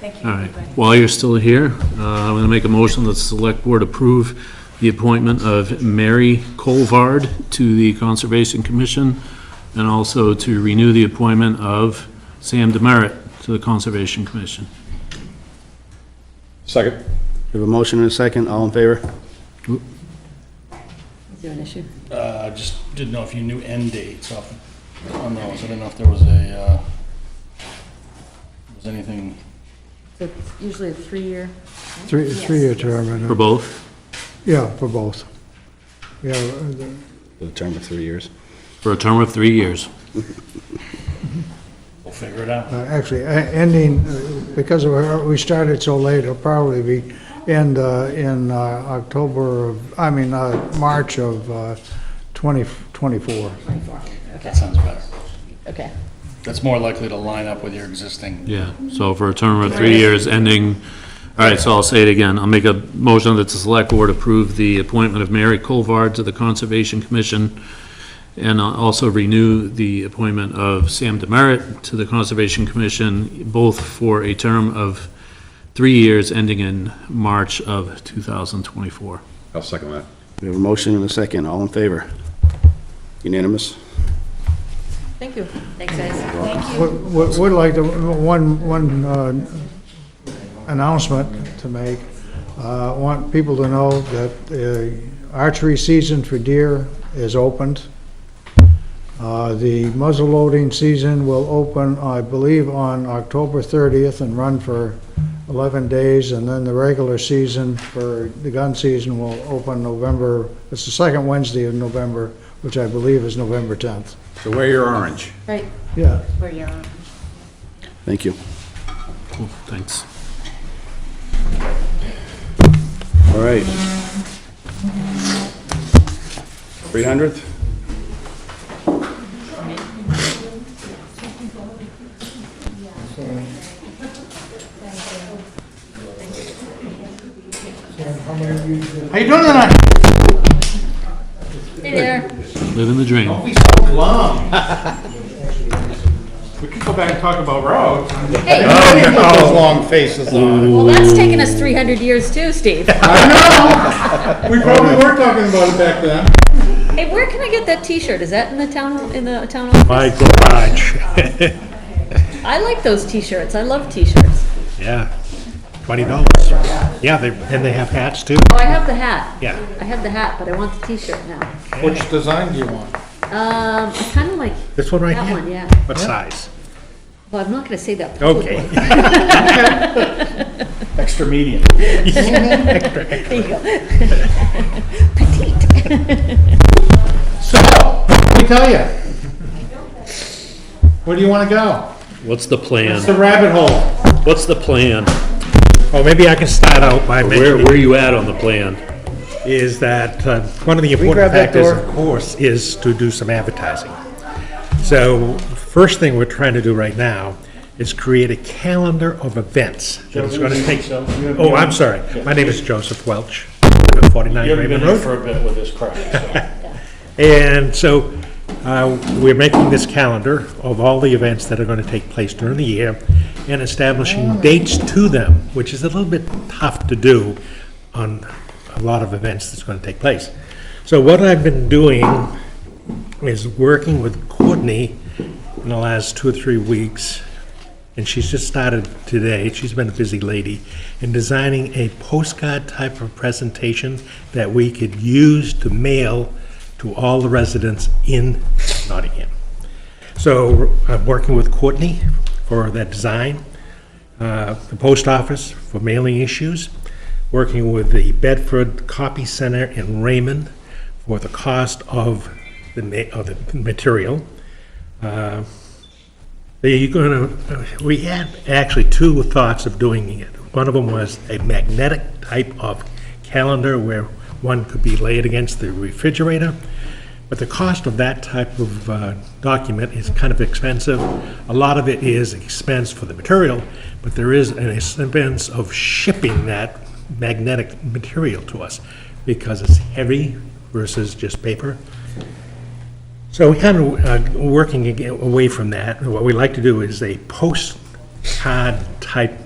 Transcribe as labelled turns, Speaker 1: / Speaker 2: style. Speaker 1: Thank you,
Speaker 2: All right,
Speaker 1: everybody.
Speaker 2: while you're still here, uh, I'm going to make a motion that the select board approve the appointment of Mary Colvard to the Conservation Commission, and also to renew the appointment of Sam Demerit to the Conservation Commission.
Speaker 3: Second.
Speaker 4: We have a motion and a second, all in favor?
Speaker 5: Is there an issue?
Speaker 6: Uh, just didn't know if you knew end dates off on those. I didn't know if there was a, uh, was anything,
Speaker 5: So It's usually a three-year,
Speaker 7: Three, three-year term,
Speaker 2: For
Speaker 7: and, uh,
Speaker 2: both,
Speaker 7: yeah, for both. Yeah, uh, the-
Speaker 4: The term of three years.
Speaker 2: for a term of three years.
Speaker 6: we'll figure it out.
Speaker 7: uh, actually, e- ending, uh, because of our- we started so late, it'll probably be end uh, in uh, October, of I mean, uh, March of uh, 2024.
Speaker 5: twenty-four. Okay,
Speaker 6: That sounds better.
Speaker 5: okay.
Speaker 6: That's more likely to line up with your existing.
Speaker 2: Yeah, so for a term of three years ending, all right, so I'll say it again. I'll make a motion that the select board approve the appointment of Mary Colvard to the Conservation Commission, and I'll also renew the appointment of Sam Demerit to the Conservation Commission, both for a term of three years ending in March of 2024.
Speaker 3: I'll second that.
Speaker 4: We have a motion and a second, all in favor? Unanimous?
Speaker 5: Thank you. Thanks, guys.
Speaker 1: Thank you.
Speaker 7: Would- Would would like to, one, one uh, announcement to make. Uh, I Want people to know that uh, archery season for deer is opened. Uh, The muzzle loading season will open, I believe, on October 30th and run for 11 days, and then the regular season for, the gun season will open November, it's the second Wednesday of November, which I believe is November 10th.
Speaker 3: So wear your orange.
Speaker 5: Right,
Speaker 7: Yeah.
Speaker 5: where you are.
Speaker 4: Thank you.
Speaker 2: Cool, Thanks.
Speaker 4: All right. 300th?
Speaker 3: How you doing tonight?
Speaker 5: Hey there.
Speaker 2: Living the dream.
Speaker 3: We so glum. We could go back and talk about roads. Those Oh, long faces on.
Speaker 5: Well, that's taken us three hundred years too, Steve.
Speaker 3: We probably were talking about it back then.
Speaker 5: Hey, where can I get that t-shirt? Is that in the town, in the town office?
Speaker 8: My garage,
Speaker 5: I like those t-shirts. I love t-shirts.
Speaker 8: yeah, twenty dollars. Yeah, they, and they have hats too,
Speaker 5: Oh, I have the hat.
Speaker 8: yeah.
Speaker 5: I have the hat, but I want the t-shirt now.
Speaker 3: Which design do you want?
Speaker 5: Um, I kinda like
Speaker 8: This one right
Speaker 5: that one,
Speaker 8: here?
Speaker 5: yeah.
Speaker 8: What size?
Speaker 5: Well, I'm not gonna say that.
Speaker 8: Okay.
Speaker 3: Extra medium.
Speaker 5: There you go. Petite.
Speaker 3: So, let me tell you. Where do you want to go?
Speaker 8: What's the
Speaker 3: It's the
Speaker 8: plan?
Speaker 3: rabbit hole.
Speaker 8: What's the plan? Well, maybe I can start out by
Speaker 2: Where,
Speaker 8: mentioning.
Speaker 2: where are you at on the plan?
Speaker 8: is that uh, one of the important factors, of course, is to do some advertising. So first thing we're trying to do right now is create a calendar of events. that is going to take. Oh, I'm sorry. My name is Joseph Welch, 49
Speaker 6: You haven't been
Speaker 8: Raymond
Speaker 6: here
Speaker 8: Road.
Speaker 6: for a bit with this crowd, so.
Speaker 8: And so uh, we're making this calendar of all the events that are going to take place during the year and establishing dates to them, which is a little bit tough to do on a lot of events that's going to take place. So what I've been doing is working with Courtney in the last two or three weeks, and she's just started today, she's been a busy lady, in designing a postcard type of presentation that we could use to mail to all the residents in Nottingham. So I'm working with Courtney for that design, uh, the post office for mailing issues, working with the Bedford Copy Center in Raymond for the cost of the, ma- of the material. Uh, They're gonna, we had actually two thoughts of doing it. One of them was a magnetic type of calendar where one could be laid against the refrigerator. But the cost of that type of uh, document is kind of expensive. A lot of it is expense for the material, but there is an expense of shipping that magnetic material to us because it's heavy versus just paper. So we're kind of uh, working ag- away from that. What we like to do is a postcard type